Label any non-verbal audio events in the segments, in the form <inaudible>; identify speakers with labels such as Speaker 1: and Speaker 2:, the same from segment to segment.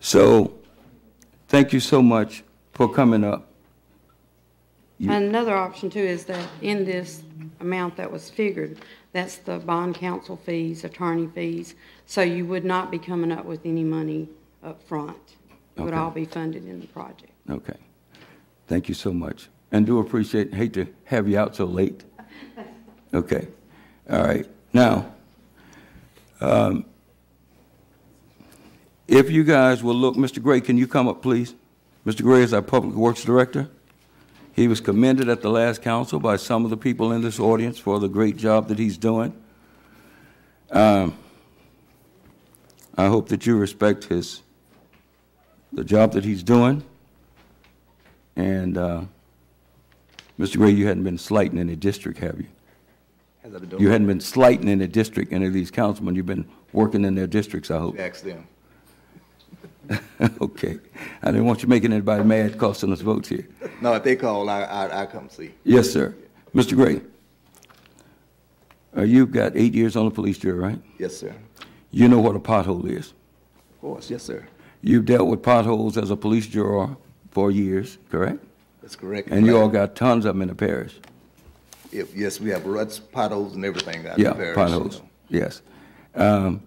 Speaker 1: So, thank you so much for coming up.
Speaker 2: Another option too is that in this amount that was figured, that's the bond counsel fees, attorney fees, so you would not be coming up with any money up front. It would
Speaker 1: Okay.
Speaker 2: all be funded in the project.
Speaker 1: Okay. Thank you so much. And do appreciate, hate to have you out so late. Okay. All right. Now, um, if you guys will look, Mr. Gray, can you come up, please? Mr. Gray is our Public Works Director. He was commended at the last council by some of the people in this audience for the great job that he's doing. Um, I hope that you respect his, the job that he's doing. And, uh, Mr. Gray, you hadn't been slighting any district, have you?
Speaker 3: How's that been
Speaker 1: You
Speaker 3: doing?
Speaker 1: hadn't been slighting any district, any of these councilmen. You've been working in their districts, I hope.
Speaker 3: Ask them.
Speaker 1: <laughs> Okay. I didn't want you making anybody mad costing us votes here.
Speaker 3: No, if they call, I, I, I come see.
Speaker 1: Yes, sir. Mr. Gray, uh, you've got eight years on the police jury, right?
Speaker 3: Yes, sir.
Speaker 1: You know what a pothole is.
Speaker 3: Of course, yes, sir.
Speaker 1: You've dealt with potholes as a police juror for years, correct?
Speaker 3: That's correct.
Speaker 1: And you all got tons of them in the parish.
Speaker 3: If, yes, we have ruts, potholes, and everything out
Speaker 1: Yeah,
Speaker 3: in the parish, you
Speaker 1: potholes,
Speaker 3: know.
Speaker 1: yes. Um,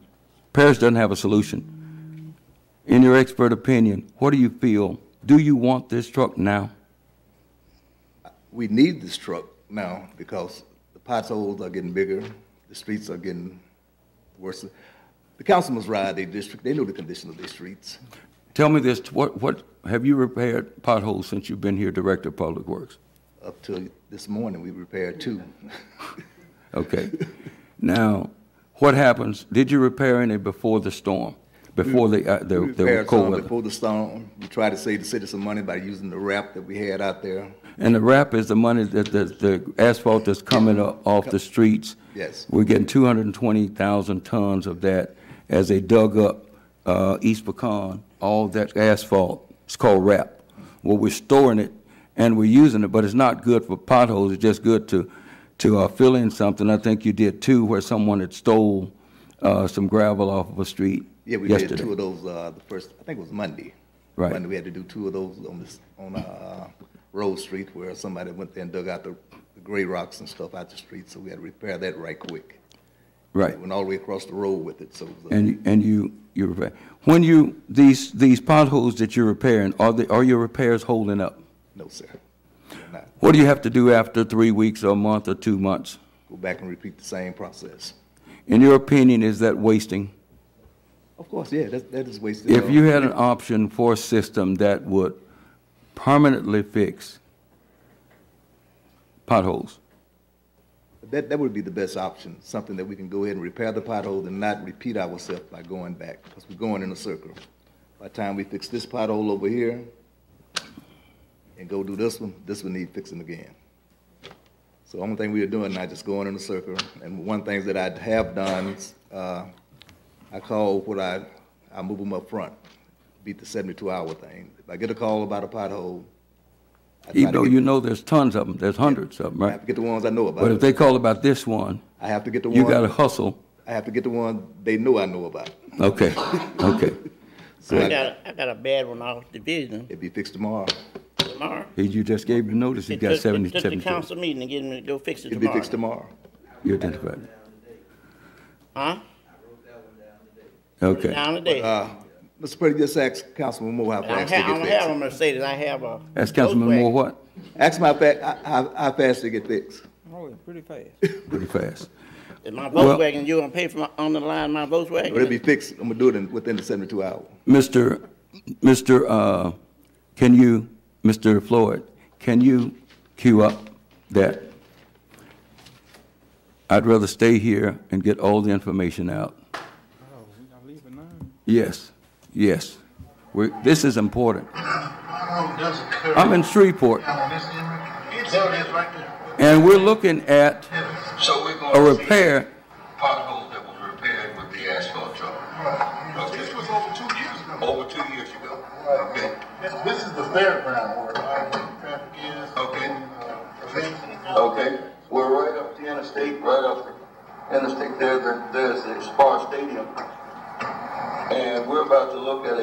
Speaker 1: Parish doesn't have a solution. In your expert opinion, what do you feel? Do you want this truck now?
Speaker 3: We need this truck now because the potholes are getting bigger, the streets are getting worse. The councilmen ride their district, they know the condition of their streets.
Speaker 1: Tell me this, what, what, have you repaired potholes since you've been here Director of Public Works?
Speaker 3: Up till this morning, we repaired two. <laughs>
Speaker 1: Okay. Now, what happens, did you repair any before the storm? Before the, uh,
Speaker 3: <laughs> We
Speaker 1: the, the
Speaker 3: repaired
Speaker 1: cold
Speaker 3: some
Speaker 1: weather?
Speaker 3: before the storm. We tried to save the city some money by using the wrap that we had out there.
Speaker 1: And the wrap is the money that, the the asphalt that's coming up off the streets.
Speaker 3: Yes.
Speaker 1: We're getting two hundred and twenty thousand tons of that as they dug up, uh, East Pecan, all that asphalt, it's called wrap. Well, we're storing it and we're using it, but it's not good for potholes, it's just good to, to, uh, fill in something. I think you did too, where someone had stole, uh, some gravel off of a street
Speaker 3: Yeah, we
Speaker 1: yesterday.
Speaker 3: did two of those, uh, the first, I think it was Monday.
Speaker 1: Right.
Speaker 3: Monday, we had to do two of those on this, on, uh, Road Street where somebody went there and dug out the the gray rocks and stuff out the street, so we had to repair that right quick.
Speaker 1: Right.
Speaker 3: It Went all the way across the road with it, so. it was uh, a-
Speaker 1: And, and you, you repair. When you, these, these potholes that you're repairing, are the, are your repairs holding up?
Speaker 3: No, sir. Not.
Speaker 1: What do you have to do after three weeks or a month or two months?
Speaker 3: Go back and repeat the same process.
Speaker 1: In your opinion, is that wasting?
Speaker 3: Of course, yeah, that, that is wasted.
Speaker 1: If
Speaker 3: uh,
Speaker 1: you had an option for a system that would permanently fix potholes,
Speaker 3: That, that would be the best option, something that we can go ahead and repair the pothole and not repeat ourselves by going back, because we're going in a circle. By the time we fix this pothole over here and go do this one, this one need fixing again. So the only thing we are doing now is just going in a circle, and one thing that I have done, uh, I call what I, I move them up front, beat the seventy-two hour thing. If I get a call about a pothole. I try
Speaker 1: even
Speaker 3: to
Speaker 1: though
Speaker 3: get-
Speaker 1: you know there's tons of them, there's hundreds of them,
Speaker 3: I have
Speaker 1: right?
Speaker 3: to get the ones I know
Speaker 1: But if
Speaker 3: about.
Speaker 1: they call about this one,
Speaker 3: I have to get the one.
Speaker 1: you gotta hustle.
Speaker 3: I have to get the one they know I know about.
Speaker 1: Okay, okay.
Speaker 3: So
Speaker 4: I
Speaker 3: I-
Speaker 4: got, I got a bad one off division
Speaker 3: it'd be fixed tomorrow.
Speaker 4: tomorrow.
Speaker 1: He- You just gave the notice, he
Speaker 4: It
Speaker 1: got
Speaker 4: took-
Speaker 1: seventy,
Speaker 4: It took the
Speaker 1: seventy.
Speaker 4: council meeting to get him to go fix it
Speaker 3: It'd be
Speaker 4: tomorrow.
Speaker 3: fixed tomorrow.
Speaker 1: You identified it.
Speaker 4: Huh?
Speaker 1: Okay.
Speaker 4: Down today. I
Speaker 3: Uh, Mr. Pretty, just ask Councilman Moore how
Speaker 4: don't
Speaker 3: fast they
Speaker 4: have,
Speaker 3: get
Speaker 4: I don't have a
Speaker 3: fixed.
Speaker 4: Mercedes, I have a.
Speaker 1: That's Councilman Moore,
Speaker 4: Volkswagen.
Speaker 1: what?
Speaker 3: Ask my fa, how- how, how fast they get fixed.
Speaker 5: Oh, yeah, pretty fast.
Speaker 1: Pretty fast.
Speaker 4: And My
Speaker 1: Well-
Speaker 4: Volkswagen, you gonna pay for my, on the line, my Volkswagen?
Speaker 3: But it'd be fixed, I'm gonna do it in, within the seventy-two hour.
Speaker 1: Mr., Mr., uh, can you, Mr. Floyd, can you queue up that? I'd rather stay here and get all the information out.
Speaker 5: Oh, we gotta leave it now.
Speaker 1: Yes, yes. We, this is important. I'm in Shreveport, and we're looking at
Speaker 6: So we're going
Speaker 1: a
Speaker 6: to
Speaker 1: repair.
Speaker 6: potholes that was repaired with the asphalt truck.
Speaker 7: This was over two years ago.
Speaker 6: Over two years ago. Okay.
Speaker 7: This, this is the fairground where our traffic is.
Speaker 6: Okay.
Speaker 7: uh, events and stuff.
Speaker 6: Okay. We're right up the interstate, right up the interstate there. there- There's the Spar Stadium. And we're about to look at